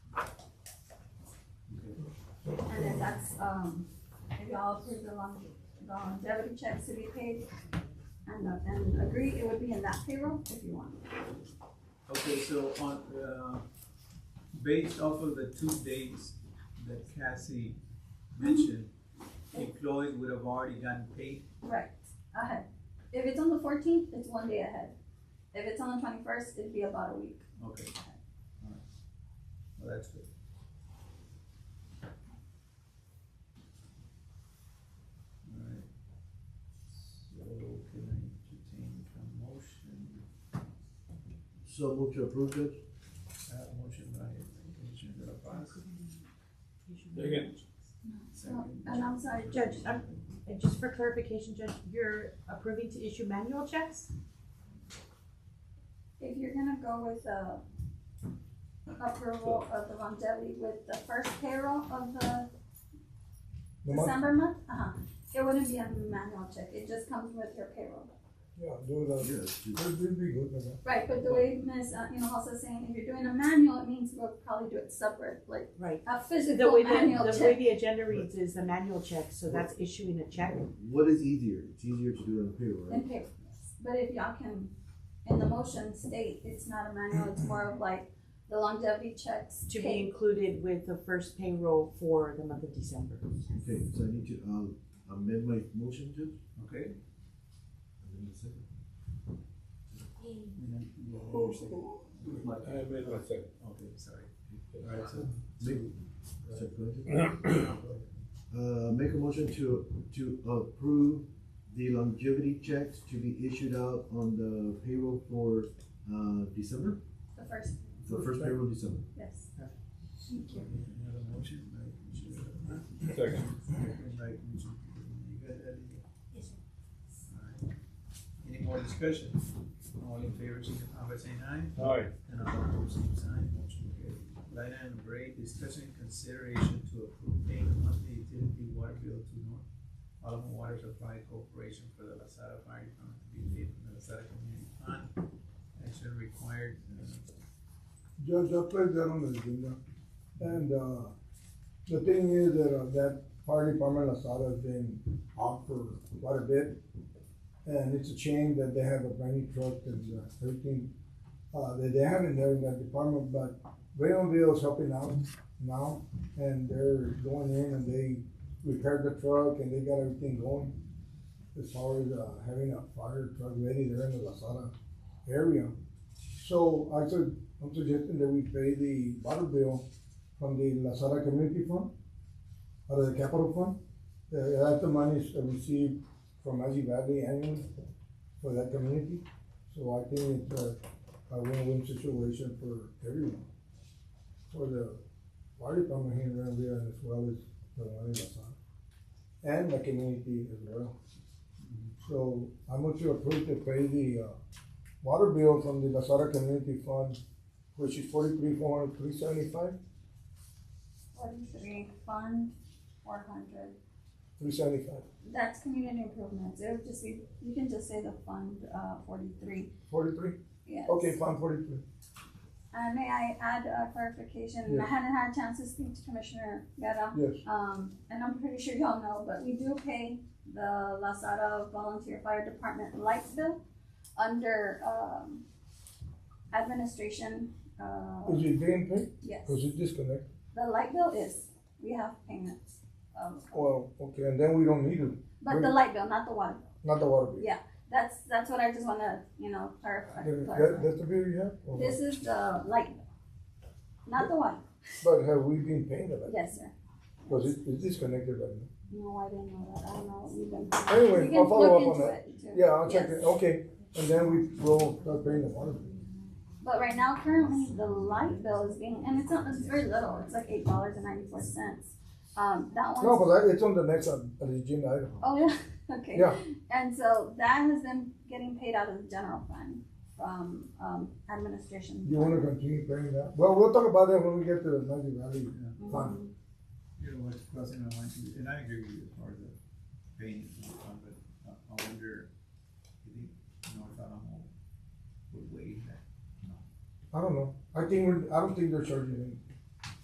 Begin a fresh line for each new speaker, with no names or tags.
that's, um, if y'all approve the lon- the longevity checks to be paid and, the- and agree, it would be in that payroll if you want.
Okay, so on, uh, based off of the two dates that Cassie mentioned, employees would have already gotten paid.
Right, ahead. If it's on the fourteenth, it's one day ahead. If it's on the twenty-first, it'd be about a week.
Okay. All right. Well, that's good. All right. So can I entertain a motion?
So move to approve, Judge?
Uh, motion by Commissioner De La Paz.
Second.
So,
Second.
and I'm sorry,
Judge, um, and just for clarification, Judge, you're approving to issue manual checks?
if you're gonna go with the approval of the longevity with the first payroll of the
The month,
December month, uh-huh, it wouldn't be a manual check, it just comes with your payroll.
yeah, do the,
Yes.
it will be good with that.
Right, but the way Ms. uh, you know, also saying, if you're doing a manual, it means we'll probably do it separate, like
Right.
a
The
physical
way the,
manual
the way
check.
the agenda reads is the manual check, so that's issuing a check.
What is easier? It's easier to do it on payroll, right?
And pay, but if y'all can, in the motion state, it's not a manual, it's more of like the longevity checks
To be
paid.
included with the first payroll for the month of December.
Okay, so I need to, um, amend my motion, Judge?
Okay.
Amend the second.
I made my second.
Okay, sorry. Alright, so,
Make, sorry, go ahead. Uh, make a motion to, to approve the longevity checks to be issued out on the payroll for, uh, December,
The first,
the first payroll in December.
yes.
another motion, right? Commissioner De La Paz.
Second.
Second by Commissioner Cordero. You got that, Leo? Alright. Any more discussion? All in favor, signify by saying aye.
All right.
And all opposed, same sign, motion carried. Line item break, discussion and consideration to approve paying the monthly utility water bill to North Alamo Water Supply Corporation for the Lasada Fire Department to be paid from the Lasada Community Fund. Action required, uh,
Judge, I put that on the agenda. And, uh, the thing is that, uh, that fire department, Lasada, has been out for quite a bit. And it's a shame that they have a brand new truck and uh, everything, uh, that they haven't there in that department, but Raymondville is helping out now. And they're going in and they repaired the truck and they got everything going. As far as, uh, having a fire truck ready there in the Lasada area. So I said, I'm suggesting that we pay the water bill from the Lasada Community Fund, or the capital fund. Uh, that's the money is received from Magic Valley annually for that community. So I think it's a, a win-win situation for everyone. For the water department here in Ranville as well as the one in Lasada. And the community as well. So I'm going to approve to pay the, uh, water bill from the Lasada Community Fund, which is forty-three, four hundred, three seventy-five,
Forty-three, fund, four hundred.
three seventy-five,
That's community improvements, it would just be, you can just say the fund, uh, forty-three,
forty-three?
yes.
Okay, fund forty-three.
And may I add a clarification, I
Yes.
hadn't had a chance to speak to Commissioner Guerra.
Yes,
Um, and I'm pretty sure y'all know, but we do pay the Lasada Volunteer Fire Department lights bill under, um, administration, uh,
is it being paid?
yes.
Was it disconnected?
The light bill is, we have payments, um,
Well, okay, and then we don't need it,
but the light bill, not the water bill,
not the water bill.
Yeah. that's, that's what I just wanna, you know, clarify.
That-
clarify.
That, that's the bill you have? or what?
This is the light bill, not the one.
But have we been paying the bill?
Yes, sir.
Because it, it's disconnected right now.
No, I didn't know that. I don't know. We've been.
Anyway,
We can
I'll follow
look
up on
into
that.
it, too.
Yeah, I'll check
Yes.
it, okay, and then we will start paying the water bill.
But right now, currently, the light bill is being, and it's not, it's very little. It's like eight dollars and ninety-four cents. Um, that one.
No, but that- it's on the next, uh, agenda item.
Oh, yeah, okay.
Yeah.
And so that has been getting paid out of the general fund from, um, administration.
You wanna continue paying that? Well, we'll talk about that when we get to the Magic Valley
uh,
Fund.
you know, what's crossing my mind, too. and I agree with you as far as the paying is concerned, but I I wonder, if you think North Alamo would waive that?
I don't know. I think we're, I don't think they're charging any.